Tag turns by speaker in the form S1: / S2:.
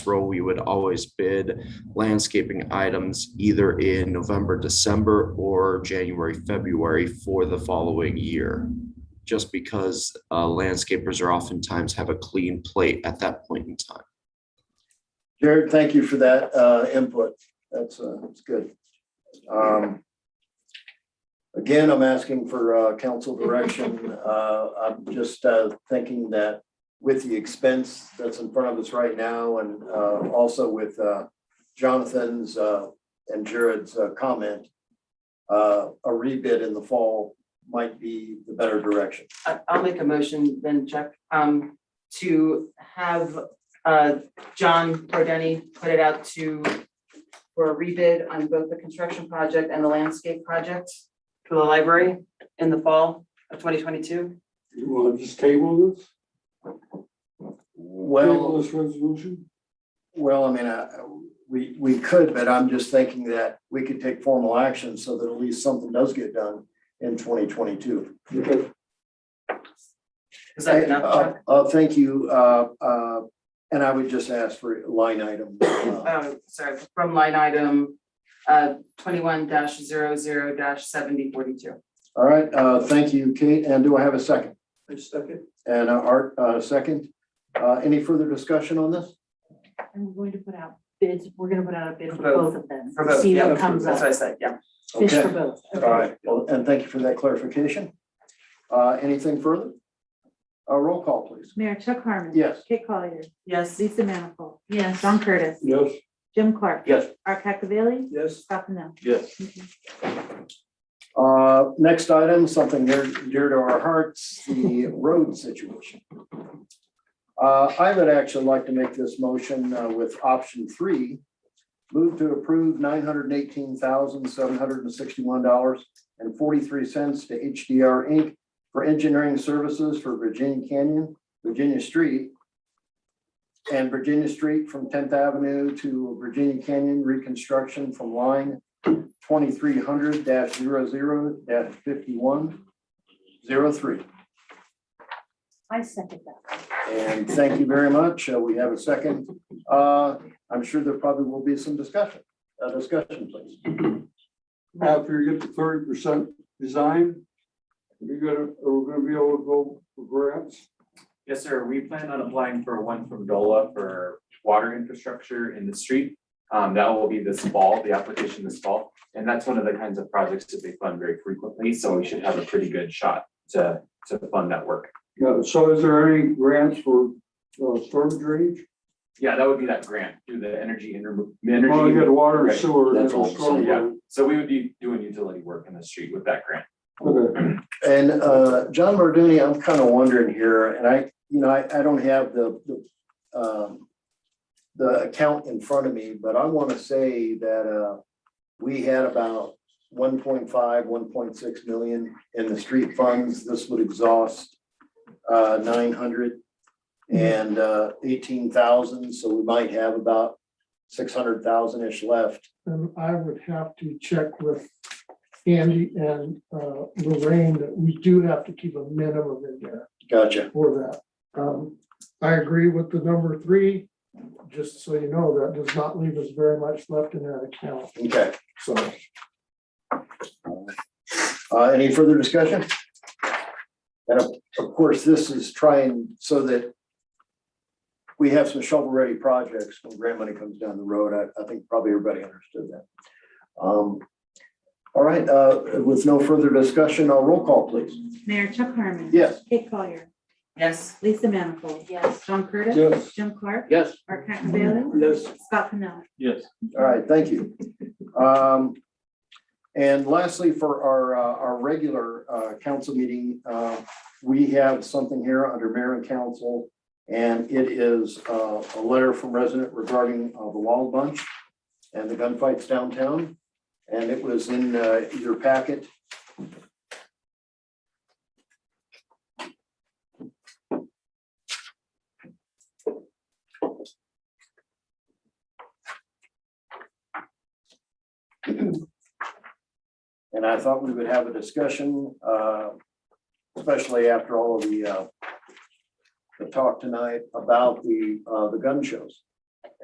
S1: throw, we would always bid landscaping items either in November, December, or January, February for the following year. Just because uh, landscapers are oftentimes have a clean plate at that point in time.
S2: Jared, thank you for that uh, input. That's, uh, that's good. Um, Again, I'm asking for uh, council direction. Uh, I'm just uh, thinking that with the expense that's in front of us right now and uh, also with uh, Jonathan's uh, and Jared's uh, comment, uh, a rebid in the fall might be the better direction.
S3: I- I'll make a motion then, Chuck, um, to have, uh, John Prodeni put it out to, for a rebid on both the construction project and the landscape project for the library in the fall of twenty twenty-two.
S4: You want to just table this?
S2: Well.
S4: Table this resolution?
S2: Well, I mean, uh, we, we could, but I'm just thinking that we could take formal action so that at least something does get done in twenty twenty-two.
S4: Okay,
S3: Is that enough, Chuck?
S2: Uh, thank you, uh, uh, and I would just ask for line item. uh,
S3: Um, sorry, from line item, uh, twenty-one 0 seventy forty-two.
S2: All right, uh, thank you, Kate, and do I have a second?
S4: I second.
S2: And uh, Art, uh, second, uh, any further discussion on this?
S5: And we're going to put out bids, we're gonna put out a bid for
S3: For both.
S5: both of them.
S3: For both,
S5: See
S3: yeah,
S5: what comes
S3: That's what I
S5: up,
S3: said, yeah.
S5: fish for
S2: Okay.
S5: both.
S2: All
S5: okay.
S2: right, well, and thank you for that clarification. Uh, anything further? Uh, roll call, please.
S6: Mayor Chuck Harmon.
S2: Yes.
S6: Kate Collier.
S3: Yes,
S6: Lisa Manifold.
S5: Yes.
S6: John Curtis.
S4: Yes.
S6: Jim Clark.
S2: Yes.
S6: Art Cacavelli.
S4: Yes.
S6: Scott Pennell.
S2: Yes. Uh, next item, something near, dear to our hearts, the road situation. Uh, I would actually like to make this motion uh, with option three. Move to approve nine hundred and eighteen thousand, seven hundred and sixty-one dollars and forty-three cents to HDR Inc. For engineering services for Virginia Canyon, Virginia Street. And Virginia Street from Tenth Avenue to Virginia Canyon reconstruction from line twenty-three hundred 0 fifty-one zero three.
S5: I second that.
S2: And thank you very much. Uh, We have a second. Uh, I'm sure there probably will be some discussion, Uh, discussion, please.
S4: After you get to thirty percent design, you're gonna, are we gonna be able to go for grants?
S7: Yes, sir. We plan on applying for one from DOLA for water infrastructure in the street. Um, that will be this fall, the application this fall, and that's one of the kinds of projects that they fund very frequently, so we should have a pretty good shot to, to fund that work.
S4: Yeah, so is there any grants for uh, storm drainage?
S7: Yeah, that would be that grant through the energy inter,
S4: Well, you
S7: energy.
S4: got water and
S7: Right,
S4: sewer.
S7: that's
S4: and
S7: all the
S4: storm
S7: same, yeah.
S4: drain.
S7: So we would be doing utility work in the street with that grant.
S4: Okay,
S2: And uh, John Marduni, I'm kind of wondering here, and I, you know, I, I don't have the, the, um, the account in front of me, but I want to say that uh, we had about 1.5, 1.6 million in the street funds. This would exhaust uh, nine hundred and uh, eighteen thousand, so we might have about six hundred thousand-ish left.
S8: then I would have to check with Andy and uh, Lorraine that we do have to keep a minimum in there
S2: Gotcha.
S8: for that. Um, I agree with the number three, just so you know, that does not leave us very much left in that account,
S2: Okay.
S8: so.
S2: Uh, any further discussion? And of, of course, this is trying so that we have some shovel-ready projects when grant money comes down the road. I, I think probably everybody understood that. Um, all right, uh, with no further discussion, I'll roll call, please.
S6: Mayor Chuck Harmon.
S2: Yes.
S6: Kate Collier.
S3: yes,
S6: Lisa Manifold.
S5: Yes.
S6: John Curtis.
S4: Yes.
S6: Jim Clark.
S2: Yes.
S6: Art Cacavelli.
S4: yes.
S6: Scott Pennell.
S7: Yes.
S2: All right, thank you. Um, and lastly, for our, uh, our regular, uh, council meeting, uh, we have something here under mayor and council. And it is, uh, a letter from resident regarding, uh, the Wild Bunch and the gunfights downtown. And it was in, uh, your packet. And I thought we would have a discussion, uh, especially after all of the, uh, the talk tonight about the, uh, the gun shows.